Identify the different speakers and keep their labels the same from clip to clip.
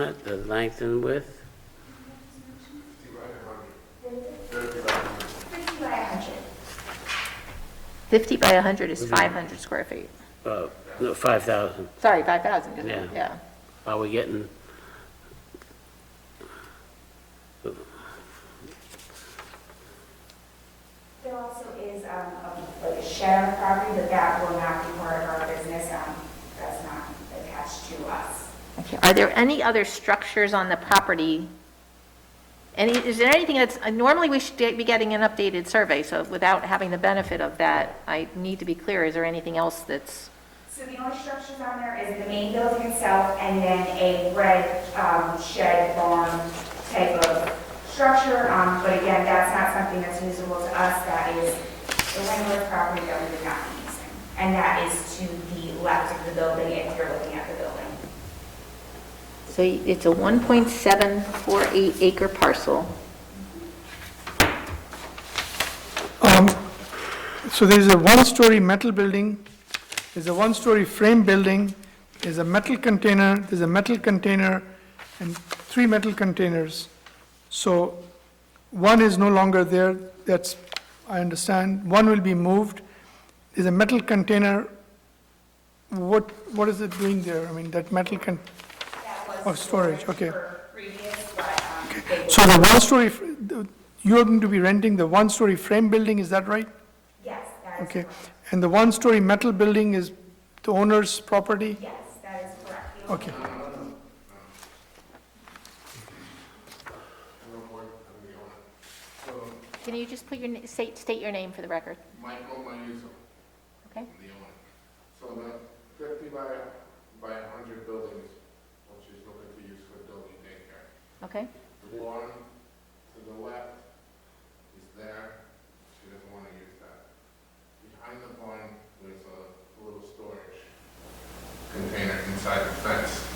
Speaker 1: Not the length and width?
Speaker 2: Fifty by a hundred.
Speaker 3: 50 by 100 is 500 square feet.
Speaker 1: Uh, no, 5,000.
Speaker 3: Sorry, 5,000, isn't it?
Speaker 1: Yeah.
Speaker 3: Yeah.
Speaker 1: Are we getting?
Speaker 2: There also is, um, a- like a share of property, but that will not be part of our business, um, that's not attached to us.
Speaker 3: Okay. Are there any other structures on the property? Any, is there anything that's, uh, normally we should be getting an updated survey, so without having the benefit of that, I need to be clear, is there anything else that's,
Speaker 2: So the only structures on there is the main building itself and then a red, um, shed barn type of structure. Um, but again, that's not something that's usable to us, that is the landlord property that we would not be using. And that is to the left of the building if you're looking at the building.
Speaker 3: so it's a 1.748 acre parcel.
Speaker 4: Um, So there's a one-story metal building, there's a one-story frame building, there's a metal container, there's a metal container, and three metal containers. So one is no longer there, that's, I understand, one will be moved. There's a metal container, what, what is it doing there? I mean, that metal con,
Speaker 2: That
Speaker 4: Oh,
Speaker 2: was
Speaker 4: storage, okay.
Speaker 2: for Previous, but, um, they-
Speaker 4: so the one-story, fr- the- you're going to be renting the one-story frame building, is that right?
Speaker 2: yes, that is
Speaker 4: Okay,
Speaker 2: correct.
Speaker 4: and the one-story metal building is the owner's property?
Speaker 2: Yes, that is correct. The
Speaker 4: Okay.
Speaker 3: Can you just put your, na- state, state your name for the record?
Speaker 5: Michael Manuso,
Speaker 3: Okay?
Speaker 5: the owner. So the fifty by, by a hundred buildings, which is looking to use for building daycare.
Speaker 3: Okay?
Speaker 5: The lawn to the left is there, she doesn't want to use that. Behind the barn, there's a little storage container inside the fence.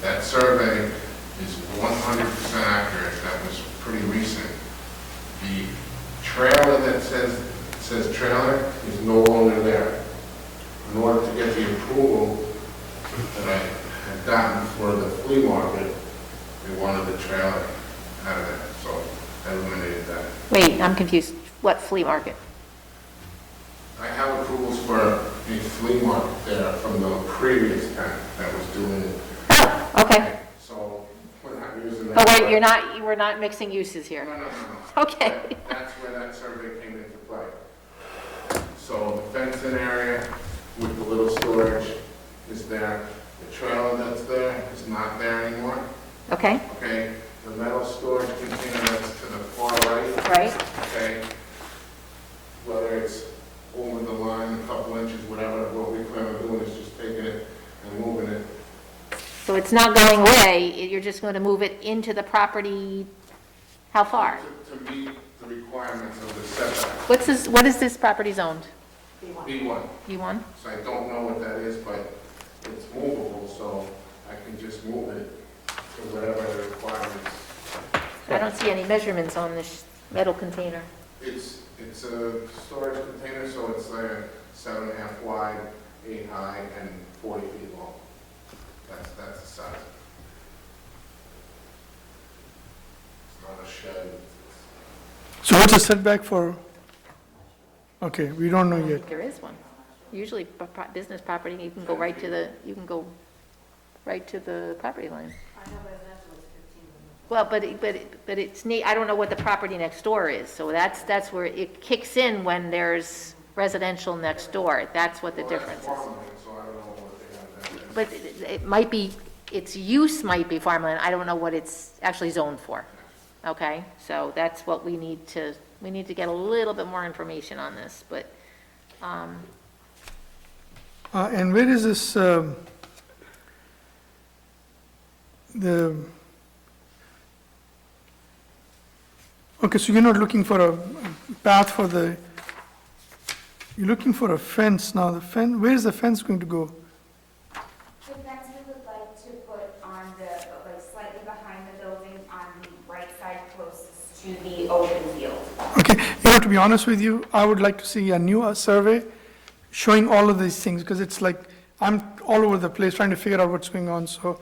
Speaker 5: That survey is one hundred percent accurate, that was pretty recent. The trailer that says, says trailer is no longer there. In order to get the approval that I had gotten for the flea market, they wanted the trailer out of there, so I eliminated that.
Speaker 3: Wait, I'm confused. What flea market?
Speaker 5: I have approvals for a flea market there from the previous tenant that was doing it.
Speaker 3: Oh, okay.
Speaker 5: So we're not using that.
Speaker 3: Oh, wait, you're not, you we're not mixing uses
Speaker 5: No, no,
Speaker 3: here.
Speaker 5: no, no.
Speaker 3: Okay.
Speaker 5: That- That's where that survey came into play. So the fencing area with the little storage is there. The trailer that's there is not there anymore,
Speaker 3: Okay,
Speaker 5: okay? The metal storage container that's to the far right,
Speaker 3: right?
Speaker 5: okay? Whether it's over the line, a couple inches, whatever, what we plan on doing is just taking it and moving it
Speaker 3: So it's not going away, it- you're just going to move it into the property, how far?
Speaker 5: to to meet the requirements of the setback.
Speaker 3: What's this, what is this property zoned?
Speaker 5: B1.
Speaker 3: B1?
Speaker 5: So I don't know what that is, but it's movable, so I can just move it to whatever the requirements.
Speaker 3: I don't see any measurements on this metal container.
Speaker 5: It's, it's a storage container, so it's like seven and a half wide, eight high, and forty feet long. That's, that's the size. It's not a shed. It's-
Speaker 4: So what's the setback for, okay, we don't
Speaker 3: I
Speaker 4: know
Speaker 3: don't
Speaker 4: yet.
Speaker 3: think there is one. Usually, bu- pro- business property, you can go right to the, you can go right to the property line. Well, but, it- but, it- but it's neat, I don't know what the property next door is, so that's, that's where it kicks in when there's residential next door, that's what the
Speaker 5: Well, that's
Speaker 3: difference is.
Speaker 5: farmland, So I don't know what they have there.
Speaker 3: But it- it might be, its use might be farmland, I don't know what it's actually zoned for. Okay, so that's what we need to, we need to get a little bit more information on this, but, um,
Speaker 4: Uh, and where is this, um, the, okay, so you're not looking for a path for the, you're looking for a fence now, the fence, where's the fence going to go?
Speaker 2: fence we would like to put on the, like slightly behind the building on the right side closest to the open field.
Speaker 4: Okay, you know, to be honest with you, I would like to see a new uh, survey showing all of these things, because it's like, I'm all over the place trying to figure out what's going on, so